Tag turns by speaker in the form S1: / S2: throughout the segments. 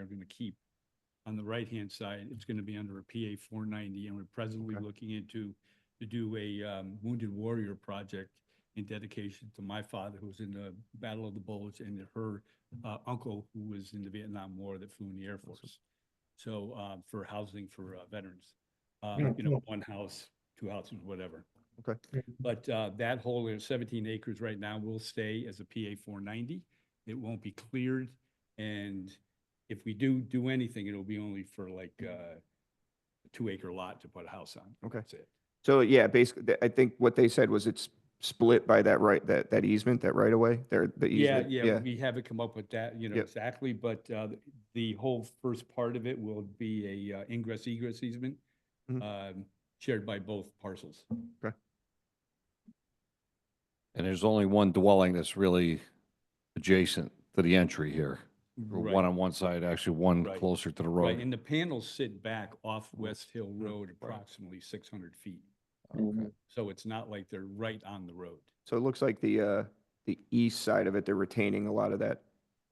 S1: they're gonna keep. On the right-hand side, it's gonna be under a PA four ninety, and we're presently
S2: Okay.
S1: looking into, to do a, um, wounded warrior project in dedication to my father, who was in the Battle of the Bulge, and her, uh, uncle, who was in the Vietnam War that flew in the Air Force. So, uh, for housing for uh, veterans, uh,
S2: Yeah,
S1: you know, one house, two houses, whatever.
S2: Okay.
S1: But uh, that whole area, 17 acres right now will stay as a PA 490. It won't be cleared. And if we do do anything, it'll be only for like uh, a two acre lot to put a house on.
S2: Okay.
S1: That's it.
S2: So yeah, basically, th- I think what they said was it's split by that right, that, that easement, that right away. way, there, the
S1: Yeah,
S2: easement.
S1: yeah, we haven't come up with that, you know,
S2: Yep.
S1: exactly, but uh, th- the whole first part of it will be a uh, ingress egress easement
S3: Mm-hmm.
S1: um, shared by both parcels.
S3: And there's only one dwelling that's really adjacent to the entry here.
S1: Right.
S3: One on one side, actually one
S1: Right.
S3: closer to the
S1: Right, and
S3: road.
S1: the panels sit back off West Hill Road
S3: right.
S1: approximately 600 feet.
S3: Okay.
S1: So it's not like they're right on the road.
S2: So it looks like the, uh, the east side of it, they're retaining a lot of that,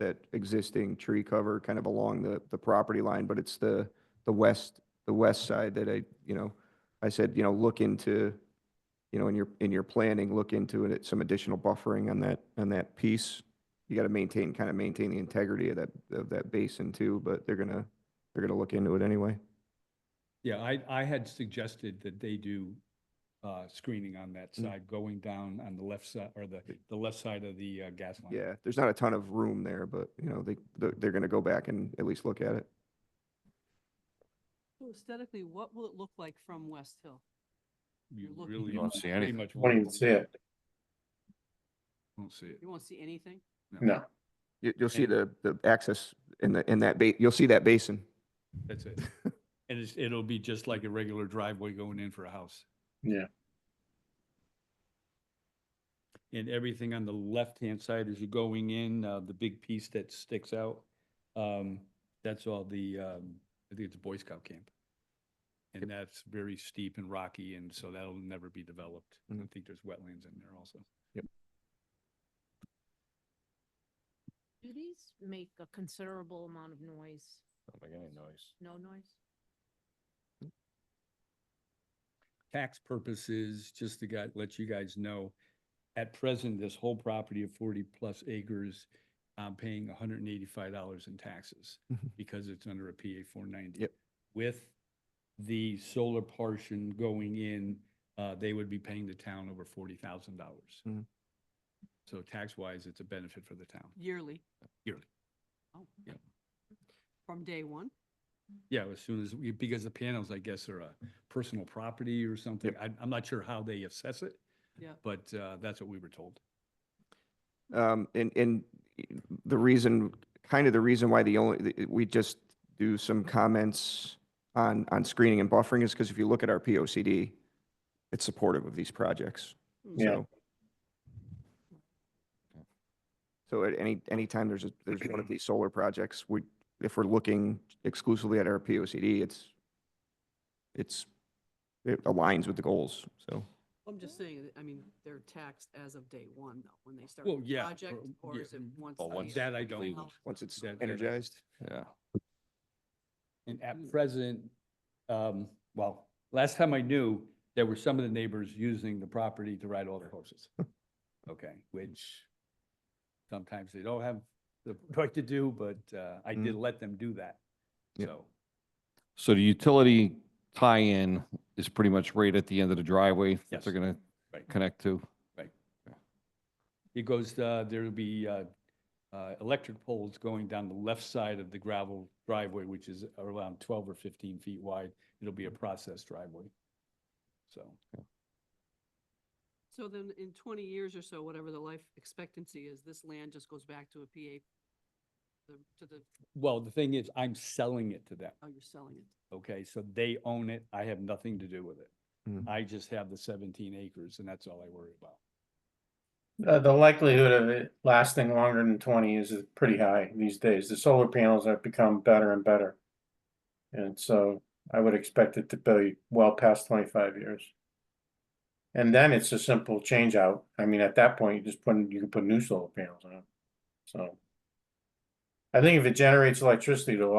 S2: that existing tree cover kind of along the, the property line, but it's the, the west, the west side that I, you know, I said, you know, look into, you know, in your, in your planning, look into it, some additional buffering on that, on that piece. You got to maintain, kind of maintain the integrity of that, of that basin too, but they're gonna, they're gonna look into it anyway.
S1: Yeah, I, I had suggested that they do uh, screening on that side, going down on the left side, or the, the left side of the uh, gas line.
S2: Yeah, there's not a ton of room there, but, you know, they, they're- they're gonna go back and at least look at it.
S4: So Aesthetically, what will it look like from West Hill?
S1: You
S4: You're looking-
S1: really.
S4: You
S3: don't see
S1: pretty
S3: anything.
S1: much
S5: Won't even see it.
S1: Won't see it.
S4: You won't see anything?
S5: No.
S2: You, you'll see
S1: And-
S2: the, the access in the, in that ba, you'll see that basin.
S1: That's it. And it's, it'll be just like a regular driveway going in for a house.
S5: Yeah.
S1: And everything on the left-hand side as you're going in, uh, the big piece that sticks out, um, that's all the, um, I think it's a Boy Scout camp. And that's very steep and rocky, and so that'll never be developed. I
S2: Mhm.
S1: think there's wetlands in there also.
S6: Do these make a considerable amount of noise? No noise?
S1: tax purposes, just to gu- let you guys know, at present, this whole property of forty-plus acres, I'm paying hundred and eighty-five dollars in taxes
S2: Mhm.
S1: because it's under a PA four ninety.
S2: Yep.
S1: With the solar portion going in, uh, they would be paying the town over forty thousand dollars.
S2: Mhm.
S1: So tax-wise, it's a benefit for the town.
S4: Yearly?
S1: Yearly.
S4: Oh.
S1: Yeah.
S4: From day one?
S1: Yeah, as soon as, we- because the panels, I guess, are a personal property or something. I, I'm not sure how they assess it.
S4: Yeah.
S1: But, uh, that's what we were told.
S2: Um, and, and the reason, kind of the reason why the only, the- we just do some comments on, on screening and buffering is because if you look at our P O C D, it's supportive of these projects.
S5: Yeah.
S2: So- So at any, anytime there's a, there's one of these solar projects, we, if we're looking exclusively at our P O C D, it's, it's, it aligns with the goals, so.
S4: I'm just saying, that- I mean, they're taxed as of day one though, when they start
S1: Well,
S4: the
S1: yeah,
S4: project,
S1: or-
S4: or
S1: yeah,
S4: is it
S1: mm,
S4: once?
S3: Well,
S4: the
S3: once
S4: year?
S1: That I don't
S3: completed.
S1: know.
S2: Once it's
S1: That- that-
S2: energized.
S3: Yeah.
S1: And at present, um, well, last time I knew, there were some of the neighbors using the property to ride all their horses. Okay, which sometimes they don't have the right to do, but, uh, I did let them do that.
S2: Yep.
S1: So,
S3: So the utility tie-in is pretty much right at the end of the driveway that they're
S1: Yes.
S3: gonna
S1: Right.
S3: connect to.
S1: it goes, uh, there'll be, uh, uh, electric poles going down the left side of the gravel driveway, which is around twelve or fifteen feet wide. It'll be a process driveway. So.
S4: So then in twenty years or so, whatever the life expectancy is, this land just goes back to a PA? the- To the,
S1: Well, the thing is, I'm selling it to them,
S4: oh, you're selling it.
S1: okay? So they own it. I have nothing to do with it.
S2: Mm.
S1: I just have the seventeen acres and that's all I worry about.
S5: Uh, The, the likelihood of it lasting longer than twenty years is pretty high these days. The solar panels have become better and better. And so I would expect it to be well past twenty-five years. And then it's a simple change out. I mean, at that point, you just put, in- you can put new solar panels on. So. I think if it generates electricity, it'll